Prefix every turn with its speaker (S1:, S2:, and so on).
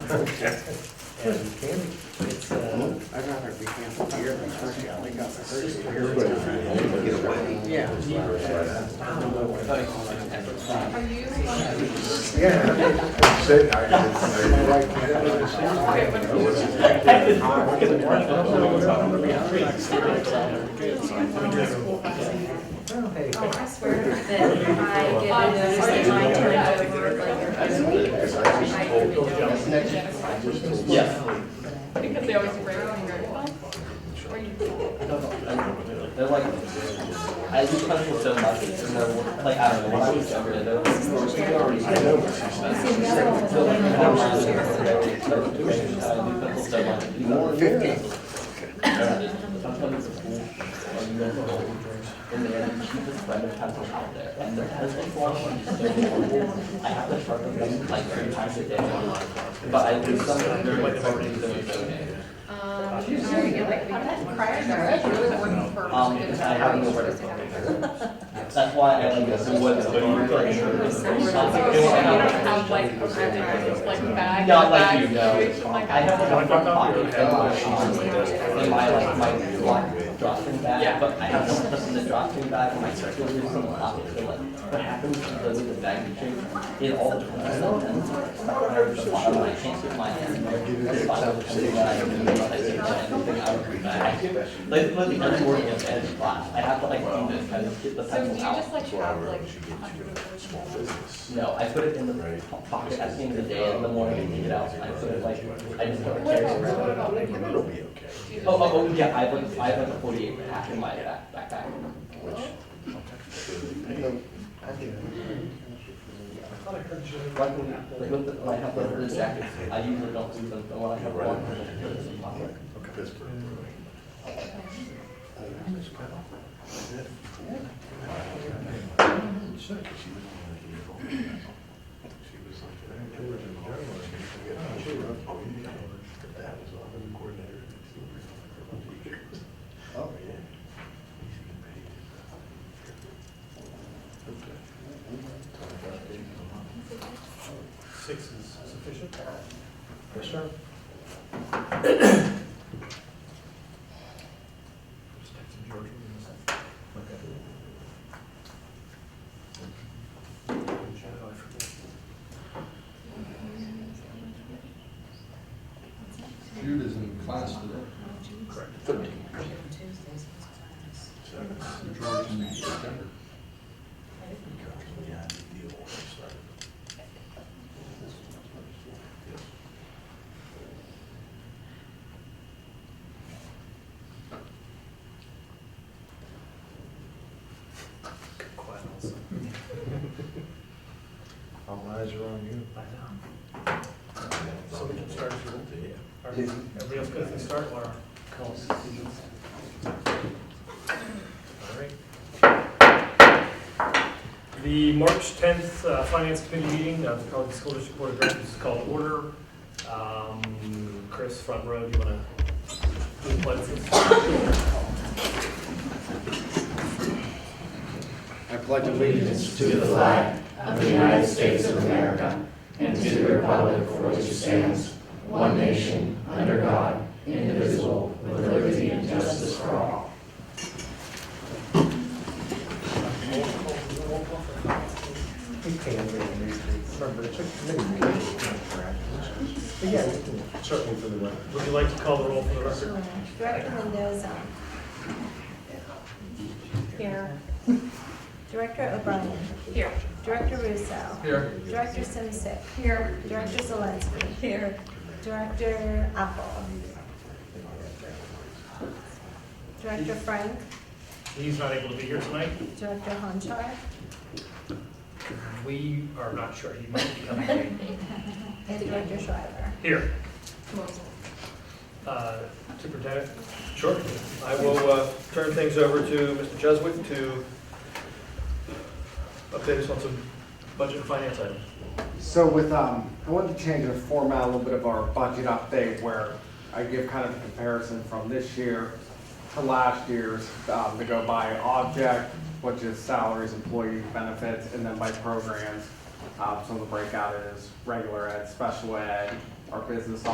S1: And it's, uh,
S2: I'd rather be camping here than Hershey, I think I'm a Hershey
S3: Get away.
S2: Yeah.
S4: Are you? on-
S3: Yeah. Sitting there, I didn't- I didn't-
S4: Okay, but-
S3: I wasn't-
S1: hey,
S5: Oh, I swear that if I get noticed that my turn is over, like,
S6: Yeah.
S4: Because they always break on your, or you,
S6: They're like, I do puzzle so much, and they're like, I don't know, when I was younger, they were. More Sometimes it's cool, like, you go to the old church, and they have the cheapest brand of pencil out there, and the pencil quality is so horrible. I have to sharpen them like three times a day, but I do some of them very quickly, they're okay.
S4: um, you know, you get like, how did that cry? That's really wouldn't for.
S6: Um, because I have nowhere to put it. That's why I like this, what is
S4: So you don't have like, a reference, like bag.
S6: Not like you,
S4: bag
S6: no.
S4: situation, like
S6: I have
S4: that.
S6: one front pocket that my shoes in my, like, my black drop-in
S4: Yeah.
S6: bag, but I have one that's in the drop-in bag, and my circular is in the pocket, so like, what happens is those are the bag change, it all depends on them. The bottom, I can't get my hand in there, the bottom comes in, I don't even know if I take anything out of the bag. Like, let me, I'm working at the end of class, I have to like, do this, kind of get the
S4: So do you
S6: pencil out.
S4: just like have like. a hundred of those?
S6: No, I put it in the pocket at the end of the day, in the morning, I take it out, I put it like, I just don't
S4: What
S6: carry
S4: about,
S6: it around.
S4: what about? like, do you just,
S6: Oh,
S4: like,
S6: oh, oh, yeah, I have like, I have like a forty-eight pack in my back, backpack. Like, when- like with the, when I have the fur jackets, I usually don't do them, but when I have one, I just put it in my pocket.
S1: six is sufficient?
S3: Yes, sir.
S1: Just text him, George, we're gonna- Oh, I forget.
S3: Jude is in class today.
S1: Quiet also.
S3: All eyes are on you.
S1: I know. So we can start if you want. Are everybody else good if we start, Laura? All right. The March 10th uh, Finance Committee meeting of the Pelican School District Board of Directors is called to order. Um, Chris, front row, do you want to do the pledge?
S2: I pledge allegiance to
S7: the flag of the United States of America and to the republic for which it stands, one nation, under God, indivisible, with liberty and justice for all.
S1: Would you like to call the roll for the record?
S5: Direct the windows up. Here. Director O'Brien.
S4: Here.
S5: Director Russo. Here. Director Simsek. Here. Director Zelensky. Here. Director Apple. Director Frank.
S1: He's not able to be here tonight.
S5: Director Honchar.
S1: We are not sure. He might be coming late.
S5: And Director Schreiber.
S1: Here. Uh, Superintendent? Sure. I will uh, turn things over to Mr. Jeswick to update us on some budget and finance items.
S2: So with, um, I wanted to change the format a little bit of our budget update where I give kind of a comparison from this year to last year's, um, to go by object, which is salaries, employee benefits, and then by programs. Um, so the breakout is regular ed, special ed, our business